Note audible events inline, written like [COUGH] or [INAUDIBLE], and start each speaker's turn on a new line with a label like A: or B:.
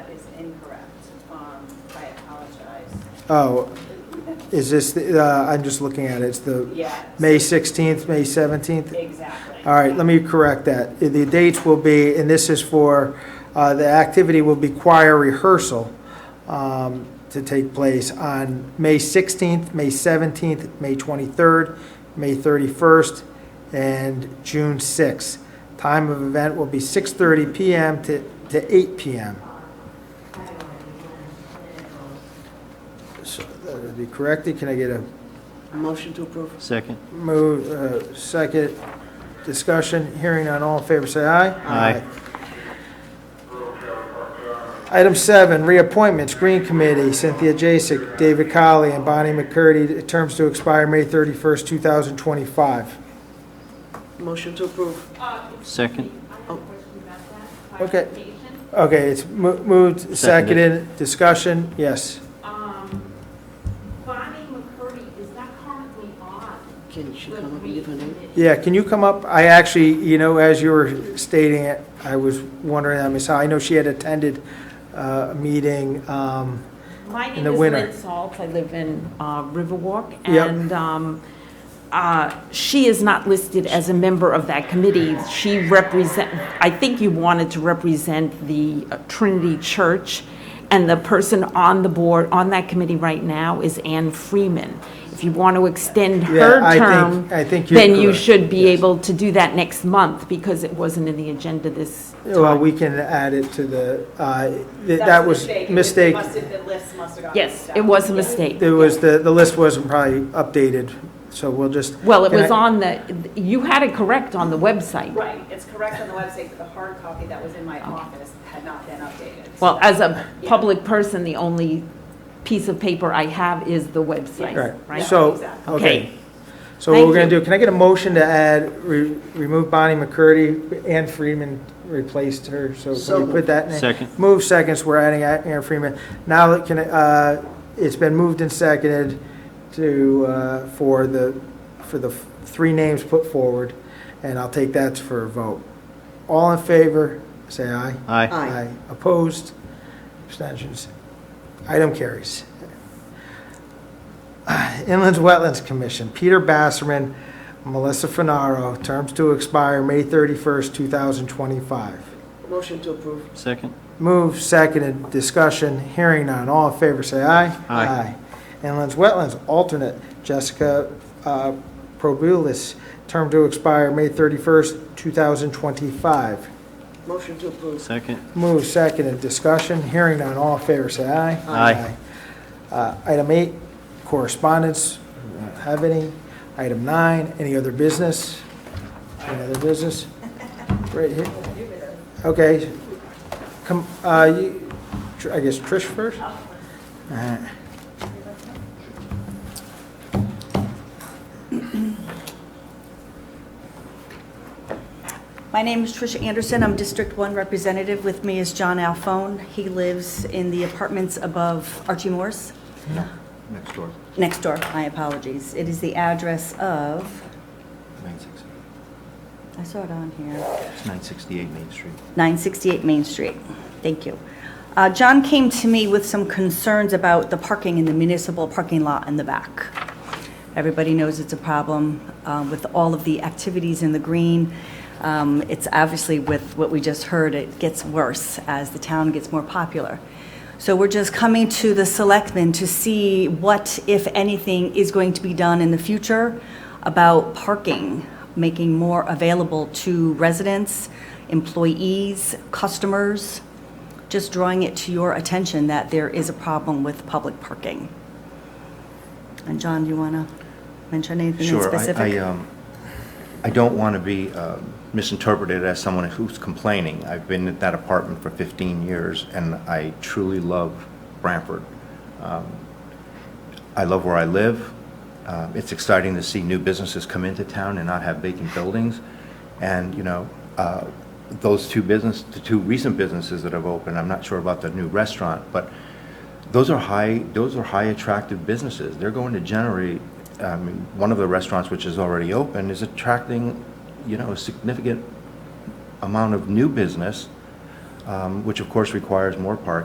A: is incorrect. Um, I apologize.
B: Oh, is this, the- uh, I'm just looking at it, it's the
A: Yeah.
B: May 16th, May 17th?
A: Exactly.
B: All right, let me correct that. The dates will be, and this is for, uh, the activity will be choir rehearsal um, to take place on May 16th, May 17th, May 23rd, May 31st, and June 6th. Time of event will be 6:30 PM to to 8 PM. So that would be corrected. Can I get a
C: Motion to approve.
D: Second.
B: Move, uh, second, discussion, hearing on all in favor, say aye.
D: Aye.
B: Item seven, reappointments, Green Committee, Cynthia Jasek, David Colley, and Bonnie McCurdy, terms to expire May 31st, 2025.
C: Motion to approve.
E: Uh,
D: Second.
B: Okay. Okay, it's mo- moved, seconded,
D: Seconded.
B: discussion, yes.
E: Um, Bonnie McCurdy is not currently on
C: Can she
E: the
C: come up and
E: Green
C: give her name?
E: Committee.
B: Yeah, can you come up? I actually, you know, as you were stating it, I was wondering, I mean, so I know she had attended uh, a meeting, um,
E: My
B: in
E: name
B: the
E: is
B: winter.
E: Lynn Saltz, I live in uh, Riverwalk,
B: Yep.
E: and um, uh, she is not listed as a member of that committee. She represent, I think you wanted to represent the uh, Trinity Church, and the person on the board, on that committee right now is Ann Freeman. If you want to extend her
B: Yeah, I think-
E: term,
B: I think you're
E: then you
B: correct.
E: should be
B: Yes.
E: able to do that next month, because it wasn't in the agenda this
B: Well, we can add it to the, uh, th-
A: That's
B: that
A: a
B: was
A: It
B: mistake.
A: must have- The list must have gotten
E: Yes,
A: mixed up.
E: it was a mistake.
B: There was, the, the list wasn't probably updated, so we'll just.
E: Well, it
B: Can
E: was
B: I-
E: on the, you had it correct on the website.
A: Right, it's correct on the website, but the hard copy that was in my office had not been updated. So
E: Well,
A: that's-
E: as a public person, the only piece of paper I have is the website,
B: Right,
E: right?
B: so,
A: Exactly.
B: okay.
E: Okay.
B: So what
E: Thank
B: we're gonna
E: you.
B: do, can I get a motion to add, re- remove Bonnie McCurdy, Ann Freeman replaced her, so
C: So
B: can we put that in?
D: Second.
B: Move seconds, we're adding A- Ann Freeman. Now, that can, uh, it's been moved and seconded to, uh, for the, for the f- three names put forward, and I'll take that for a vote. All in favor, say aye.
D: Aye.
C: Aye.
B: Opposed? Abstentions? Item carries. [SIGHS] Inland Wetlands Commission, Peter Basserman, Melissa Finaro, terms to expire May 31st, 2025.
C: Motion to approve.
D: Second.
B: Move, seconded, discussion, hearing none, all in favor, say aye.
D: Aye.
B: Aye. Inland Wetlands, alternate, Jessica uh, Probulis, term to expire May 31st, 2025.
C: Motion to approve.
D: Second.
B: Move second in discussion, hearing none, all in favor, say aye.
D: Aye.
B: Aye. Uh, Item eight, correspondence, We don't have any. Item nine, any other business? Any other business? Right here. Okay. Come, uh, you- Tr- I guess Trish first?
F: Uh-huh.
B: Uh,
G: My name is Tricia Anderson. I'm District 1 Representative. With me is John Alphone. He lives in the apartments above Archie Morris.
F: Next door,
G: Next door, my apologies. It is the address of,
F: 960.
G: I saw it on here.
F: It's 968 Main Street.
G: 968 Main Street. Thank you. Uh, John came to me with some concerns about the parking in the municipal parking lot in the back. Everybody knows it's a problem uh, with all of the activities in the green. Um, It's obviously with what we just heard, it gets worse as the town gets more popular. So we're just coming to the selectmen to see what, if anything, is going to be done in the future about parking, making more available to residents, employees, customers, just drawing it to your attention that there is a problem with public parking. And John, do you want to mention anything in
F: Sure,
G: specific?
F: I- I, um, I don't want to be um, misinterpreted as someone who's complaining. I've been at that apartment for 15 years, and I truly love Branford. Um, I love where I live. Um, It's exciting to see new businesses come into town and not have vacant buildings. And, you know, uh, those two business, the two recent businesses that have opened, I'm not sure about the new restaurant, but those are high, those are high attractive businesses. They're going to generate, I mean, one of the restaurants which is already open is attracting, you know, a significant amount of new business, um, which of course requires more parking.